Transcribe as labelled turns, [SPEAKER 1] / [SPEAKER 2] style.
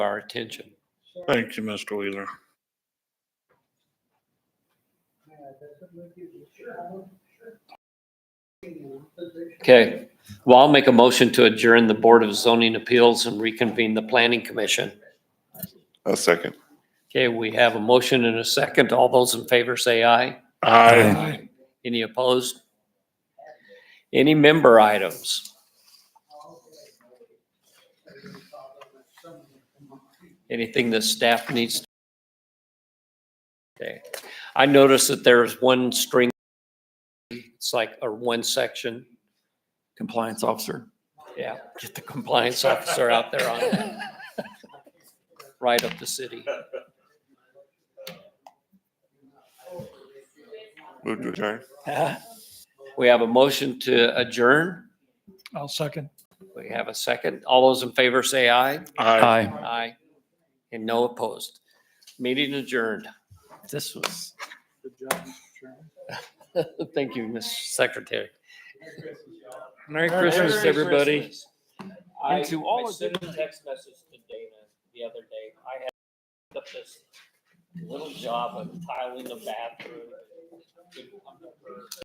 [SPEAKER 1] our attention.
[SPEAKER 2] Thank you, Mr. Wheeler.
[SPEAKER 1] Okay, well, I'll make a motion to adjourn the Board of Zoning Appeals and reconvene the Planning Commission.
[SPEAKER 3] A second.
[SPEAKER 1] Okay, we have a motion and a second. All those in favor say aye.
[SPEAKER 2] Aye.
[SPEAKER 1] Any opposed? Any member items? Anything that staff needs? Okay, I noticed that there's one string, it's like, or one section.
[SPEAKER 4] compliance officer.
[SPEAKER 1] Yeah, get the compliance officer out there on that. Right up the city.
[SPEAKER 3] Move to adjourn.
[SPEAKER 1] We have a motion to adjourn.
[SPEAKER 5] I'll second.
[SPEAKER 1] We have a second. All those in favor say aye.
[SPEAKER 2] Aye.
[SPEAKER 4] Hi,
[SPEAKER 1] Aye. And no opposed. Meeting adjourned.
[SPEAKER 4] this was.
[SPEAKER 1] Thank you, Mr. Secretary.
[SPEAKER 4] Merry
[SPEAKER 1] Christmas, everybody.
[SPEAKER 4] I- And to all I of
[SPEAKER 1] them.
[SPEAKER 4] sent
[SPEAKER 1] text message to Dana the other day. I had up this little job of tiling the bathroom.